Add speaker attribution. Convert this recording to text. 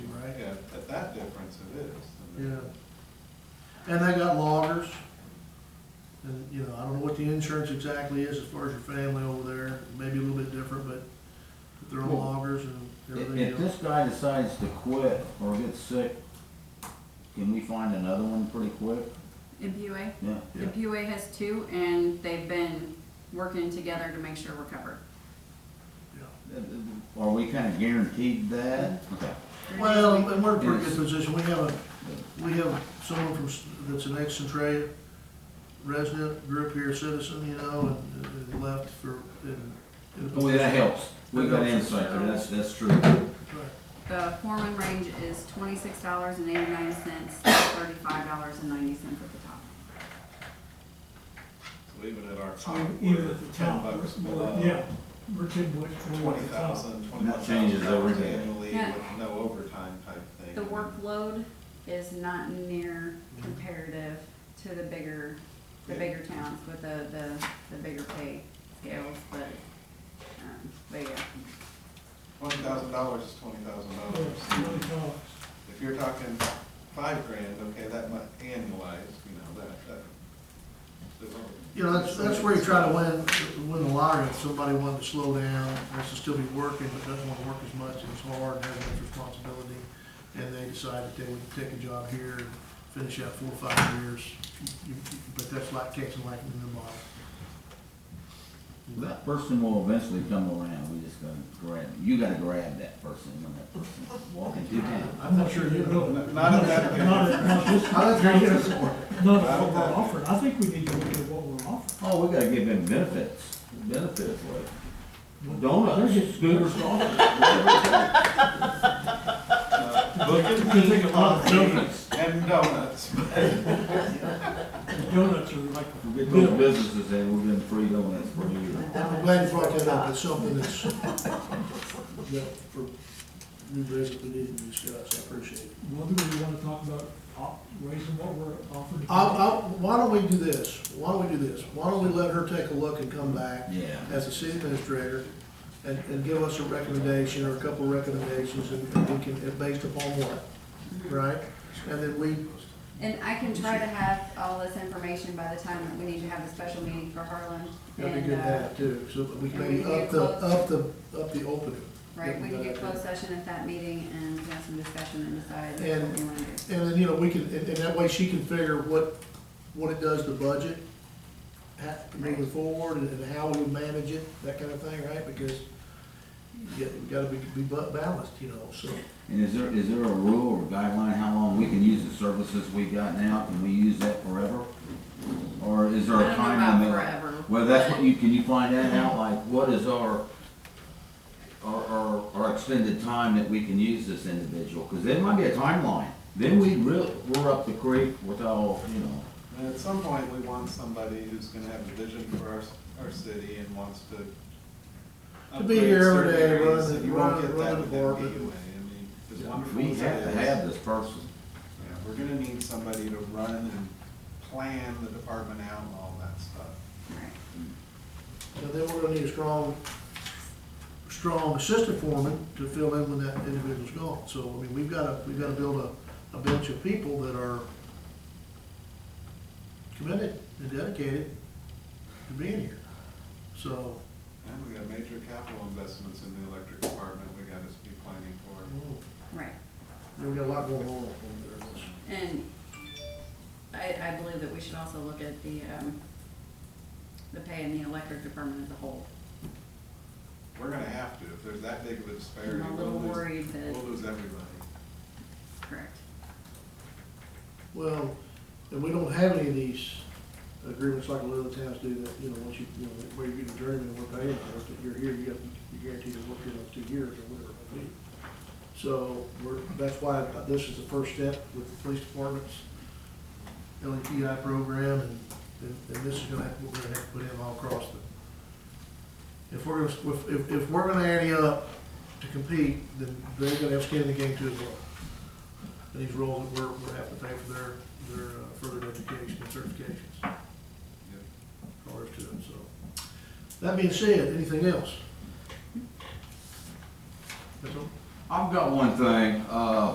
Speaker 1: expensive it is. I mean,
Speaker 2: Yeah. And they got loggers. And, you know, I don't know what the insurance exactly is as far as your family over there, maybe a little bit different, but they're on
Speaker 3: Well,
Speaker 2: loggers and
Speaker 3: If,
Speaker 2: everything else.
Speaker 3: if this guy decides to quit or get sick, can we find another one pretty quick?
Speaker 4: In PUA?
Speaker 3: Yeah.
Speaker 4: The PUA has two, and they've been working together to make sure we're covered.
Speaker 3: Are we kinda guaranteed that? Okay.
Speaker 2: Well, and we're in a pretty good
Speaker 3: Yes.
Speaker 2: position, we have a, we have someone from, s- that's an ex Centray resident, grew up here citizen, you know, and, and left for, in. in a
Speaker 3: Well, Oh, that helps. We got
Speaker 2: That helps.
Speaker 3: insight there, that's, that's true.
Speaker 2: Right.
Speaker 4: The foreman range is twenty-six dollars and eighty-nine cents to thirty-five dollars and ninety cents at the top.
Speaker 1: So even at our
Speaker 5: So
Speaker 1: top,
Speaker 5: even
Speaker 1: we're
Speaker 5: at the
Speaker 1: ten
Speaker 5: top,
Speaker 1: bucks
Speaker 5: we're-
Speaker 1: below.
Speaker 5: yeah, we're ten bucks below
Speaker 1: Twenty
Speaker 5: the top.
Speaker 1: thousand, twenty-one
Speaker 3: That
Speaker 1: thousand
Speaker 3: changes every
Speaker 1: dollars
Speaker 3: day.
Speaker 1: annually
Speaker 4: Yeah.
Speaker 1: with no overtime type thing.
Speaker 4: The workload is not near comparative to the bigger, the
Speaker 1: Yeah.
Speaker 4: bigger towns with the, the, the bigger pay scales, but, um, but yeah.
Speaker 1: Twenty thousand dollars is twenty thousand
Speaker 5: Twenty
Speaker 1: dollars.
Speaker 5: dollars.
Speaker 1: If you're talking five grand, okay, that might annualize, you know, that, that.
Speaker 2: You know, that's, that's where you try to win, win the lottery, if somebody wanted to slow down, wants to still be working, but doesn't wanna work as much, and it's hard, and has much responsibility, and they decide that they would take a job here, and finish out four or five years, You- you- but that's like catching lightning in the bottle.
Speaker 3: That person will eventually come around, we just gotta grab, you gotta grab that person when that person's walking through town.
Speaker 5: I'm not sure you will.
Speaker 1: Not- not at that rate.
Speaker 5: Not at, not this,
Speaker 2: I don't
Speaker 5: not
Speaker 2: think
Speaker 5: this,
Speaker 2: it's-
Speaker 5: not
Speaker 1: Not
Speaker 5: what
Speaker 1: at that
Speaker 5: we're offering. I think we need to look at what we're offering.
Speaker 3: Oh, we gotta give them benefits, benefits like donuts, scooters, donuts. whatever it takes.
Speaker 5: It's gonna take a lot of donuts.
Speaker 1: And donuts.
Speaker 5: Donuts are like,
Speaker 3: We get those businesses in, we've been free donuts for years.
Speaker 2: I'm glad you brought that up, it's something that's, yeah, for new business we need to discuss, I appreciate it.
Speaker 5: whether we wanna talk about op- raising what we're offering.
Speaker 2: I, I, why don't we do this? Why don't we do this? Why don't we let her take a look and come back?
Speaker 3: Yeah.
Speaker 2: As a city administrator, and, and give us a recommendation or a couple of recommendations, and and we can, and based upon what, right? And then we,
Speaker 4: And I can try to have all this information by the time that we need to have the special meeting for Harlan.
Speaker 2: that'd be
Speaker 4: and,
Speaker 2: good to
Speaker 4: uh,
Speaker 2: have too, so that we can maybe
Speaker 4: And we can
Speaker 2: up the,
Speaker 4: get
Speaker 2: up the, up the opening.
Speaker 4: Right, we can get
Speaker 2: Yeah.
Speaker 4: closed session at that meeting and have some discussion and decide
Speaker 2: And-
Speaker 4: what we wanna do.
Speaker 2: And then, you know, we can, and, and that way she can figure what, what it does to budget, ha moving forward, and, and how we manage it, that kind of thing, right? Because you got- you gotta be, be bu- balanced, you know, so.
Speaker 3: And is there, is there a rule or guideline how long we can use the services we got now? Can we use that forever? Or is there a
Speaker 4: I don't know
Speaker 3: time
Speaker 4: about
Speaker 3: limit?
Speaker 4: forever.
Speaker 3: Well, that's what you, can you find that out, like, what is our, our, our, our extended time that we can use this individual? Cause there might be a timeline, then we really, we're up the creek without, you know,
Speaker 1: And at some point, we want somebody who's gonna have a vision for our, our city and wants to.
Speaker 2: To be here every
Speaker 1: upgrade
Speaker 2: day,
Speaker 1: certain areas
Speaker 2: run the-
Speaker 1: that You won't get
Speaker 2: run- run
Speaker 1: that
Speaker 2: the
Speaker 1: with that PUA, I
Speaker 2: department.
Speaker 1: mean, as wonderful
Speaker 3: we
Speaker 1: as it
Speaker 3: have to
Speaker 1: is,
Speaker 3: have this person.
Speaker 1: yeah, We're gonna need somebody to run and plan the department out and all that stuff.
Speaker 4: Right.
Speaker 2: And then we're gonna need a strong, strong assistant foreman to fill in when that individual's gone. So, I mean, we've gotta, we've gotta build a, a bench of people that are committed and dedicated to being here. So,
Speaker 1: And we got major capital investments in the electric department we gotta be planning for.
Speaker 4: Right,
Speaker 2: we've got a lot going on over there.
Speaker 4: and I, I believe that we should also look at the, um, the pay in the electric department as a whole.
Speaker 1: We're gonna have to, if there's that big of a disparity,
Speaker 4: I'm a little
Speaker 1: we'll lose,
Speaker 4: worried that,
Speaker 1: we'll lose everybody.
Speaker 4: correct.
Speaker 2: Well, and we don't have any of these agreements like a lot of other towns do that, you know, once you, you know, where you get a journeyman and we're paying for it, that you're here, you have, you're guaranteed to work here those two years or whatever it may be. So, we're, that's why this is the first step with the police department's LETI program, and, and and this is gonna, have- we're gonna have to put in all across the. If we're gonna, if, if, if we're gonna ante up to compete, then they're gonna have skin in the game too as well and these roles that we're, we're having to pay for their, their uh, further education and certifications,
Speaker 1: Yep.
Speaker 2: prior to them, so. That being said, anything else? That's all?
Speaker 3: I've got one thing, uh,